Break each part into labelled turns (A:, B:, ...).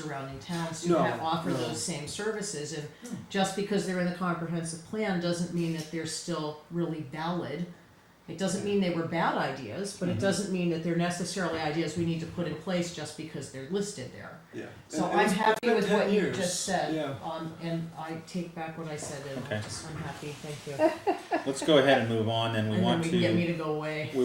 A: surrounding towns do have,
B: No,
A: offer
B: no. Hmm.
A: those same services, and just because they're in the comprehensive plan doesn't mean that they're still really valid. It doesn't mean they were bad ideas, but it
B: Mm-hmm.
C: Mhm.
A: doesn't mean that they're necessarily ideas we need to put in place just because they're listed there.
B: Yeah.
A: So
B: And- and
A: I'm
B: it's- it's
A: happy
B: been
A: with
B: 10
A: what you
B: years.
A: just said,
B: Yeah.
A: um, and I take back what I said, and
C: Okay.
A: I'm just, I'm happy, thank you.
C: Let's go ahead and move on, then
A: And
C: we
A: then
C: want
A: we
C: to.
A: can get me to go away.
C: We,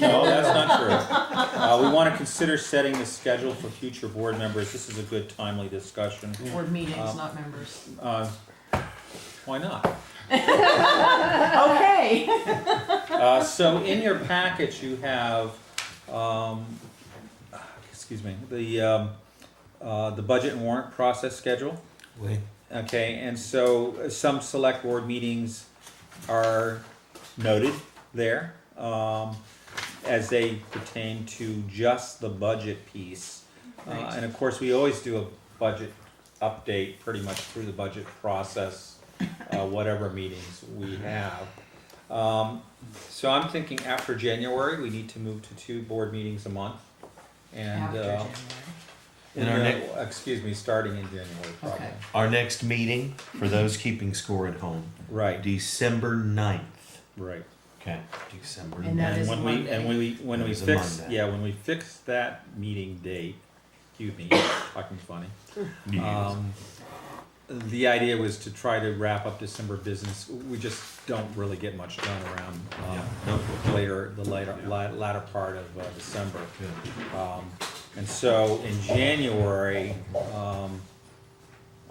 C: no, that's not true. Uh, we wanna consider setting the schedule for future board members, this is a good timely discussion,
A: Board meetings,
C: Um,
A: not members.
C: uh, why not?
A: Okay.
C: Uh, so in your package, you have, um, excuse me, the, um, uh, the budget and warrant process schedule.
D: Wait,
C: Okay, and so uh, some select board meetings are noted there, um, as they pertain to just the budget piece. Uh,
A: Right.
C: and of course, we always do a budget update pretty much through the budget process, uh, whatever meetings we have. Um, so I'm thinking after January, we need to move to two board meetings a month. And,
A: After
C: uh,
A: January.
D: And our
C: no,
D: next-
C: excuse me, starting in January, probably.
A: Okay.
D: our next meeting, for those keeping score at home,
C: Right.
D: December 9th.
C: Right.
D: Okay, December
A: And that
D: 9th.
A: is
C: And when we, and when we, when we
D: It's a
C: fix,
D: Monday.
C: yeah, when we fix that meeting date, excuse me, fucking funny.
D: Yeah.
C: Um, the idea was to try to wrap up December business. We just don't really get much done around,
D: Yeah.
C: um, later, the later, la- latter part of uh, December.
D: Good.
C: Um, and so in January, um,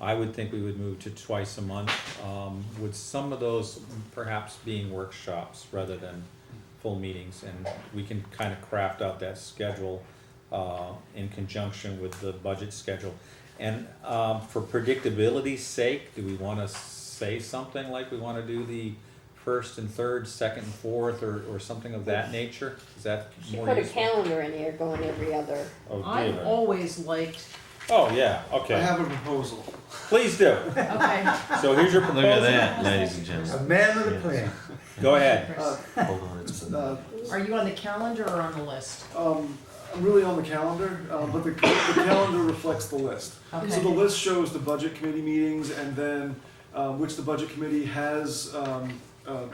C: I would think we would move to twice a month, um, with some of those perhaps being workshops rather than full meetings. And we can kind of craft out that schedule, uh, in conjunction with the budget schedule. And, um, for predictability's sake, do we want to say something like we want to do the first and third, second and fourth, or, or something of that nature? Is that
E: She
C: more
E: put a
C: useful?
E: calendar in there going every other.
C: Oh,
A: I've
C: dear.
A: always liked,
C: Oh, yeah,
B: I
C: okay.
B: have a proposal.
C: Please do.
A: okay.
C: So here's your
D: Look at
C: proposal.
D: that, ladies and gentlemen.
F: Amendment
D: Yes.
F: of plan.
C: Go ahead.
B: Uh,
D: Hold on, it's
B: uh,
A: Are you on the calendar or on the list?
B: um, I'm really on the calendar, uh, but the, the calendar reflects the list. So the
A: Okay.
B: list shows the budget committee meetings and then, uh, which the budget committee has, um, uh,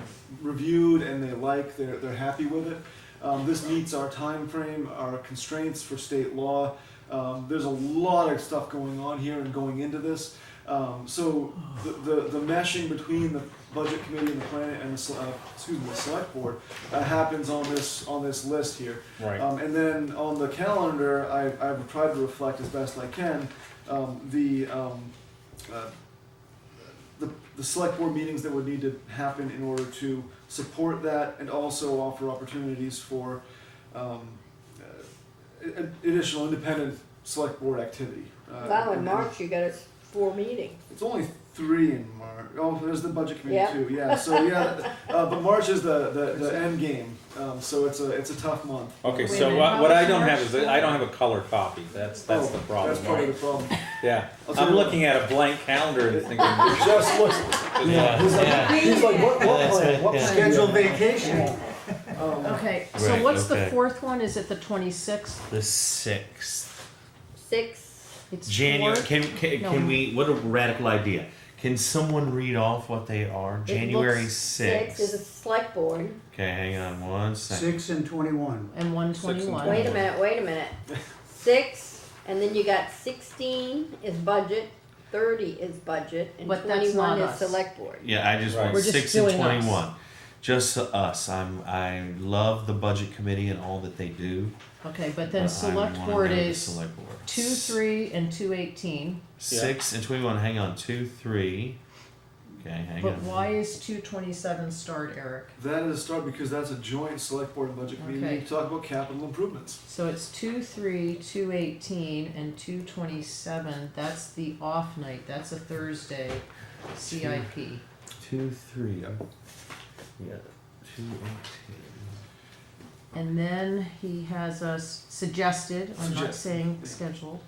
B: reviewed and they like, they're, they're happy with it. Um, this meets our time frame, our constraints for state law. Um, there's a lot of stuff going on here and going into this. Um, so the, the, the meshing between the budget committee and the plan and the, sele- uh, excuse me, the select board, uh, happens on this, on this list here.
C: Right.
B: Um, and then on the calendar, I, I've tried to reflect as best I can um, the, um, uh, the the select board meetings that would need to happen in order to support that, and also offer opportunities for um, uh, a- additional independent select board activity. Uh,
E: Wow, in
B: and-
E: March you got us four meetings.
B: it's only three in March. Oh, there's the budget committee
E: Yeah.
B: too. Yeah. So yeah, uh, but March is the, the, the end game. Um, so it's a it's a tough month.
C: Okay,
A: Wait a
C: so
A: minute,
C: what,
A: how
C: what I
A: much
C: don't
A: more?
C: have is, I don't have a color copy. That's, that's
B: Oh,
C: the
B: That's
C: problem,
B: part of
C: right?
B: the problem.
C: Yeah.
B: I'll tell
C: I'm
B: you what.
C: looking at a blank calendar and thinking, this
B: It just looks.
C: is
D: Yeah.
B: He's like, he's like, what, what
D: That's
B: plan?
D: it,
B: What
D: yeah.
B: plan?
F: Scheduled vacation.
B: Um,
A: Okay, so
D: Right,
A: what's the
D: okay.
A: fourth one? Is it the twenty-sixth?
D: the 6th.
E: Six,
A: It's
D: January.
A: fourth?
D: Can, can,
A: No.
D: can we? What a radical idea. Can someone read off what they are? January
A: looks-
D: 6th.
E: six is a select board.
D: okay, hang on one second.
F: Six and twenty-one.
A: And one
E: Wait
A: twenty-one.
E: a minute, wait a minute. Six, and then you got sixteen is budget, thirty is budget, and
A: But that's
E: twenty-one
A: not
E: is
A: us.
E: select board.
D: Yeah, I just want
C: We're
A: just
D: 6 and
A: doing us.
D: 21. Just us. I'm, I love the budget committee and all that they do.
A: Okay, but
D: but I
A: then select
D: wanna
A: board
D: know the
A: is
D: select board.
A: two, three, and two eighteen,
D: Six and twenty-one. Hang on, two, three. Okay, hang
A: but
D: on.
A: why is two twenty-seven starred, Eric?
B: That is a start because that's a joint select board and budget committee.
A: Okay.
B: We talk about capital improvements.
A: So it's two, three, two eighteen, and two twenty-seven. That's the off night. That's a Thursday CIP.
D: Two, three. I'm- Yeah, two, eighteen.
A: And then he has us suggested, I'm not
B: Suggested,
A: saying
B: yeah.
A: scheduled,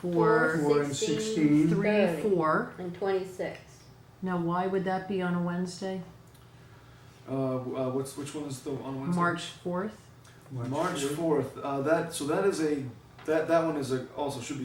E: Four,
A: for
F: Four and
E: sixteen,
F: sixteen.
A: three,
E: thirty.
A: four.
E: And twenty-six.
A: Now, why would that be on a Wednesday?
B: Uh, w- uh, what's which one is the on Wednesday?
A: March 4th?
B: March fourth. Uh, that so that is a That, that one is a, also should be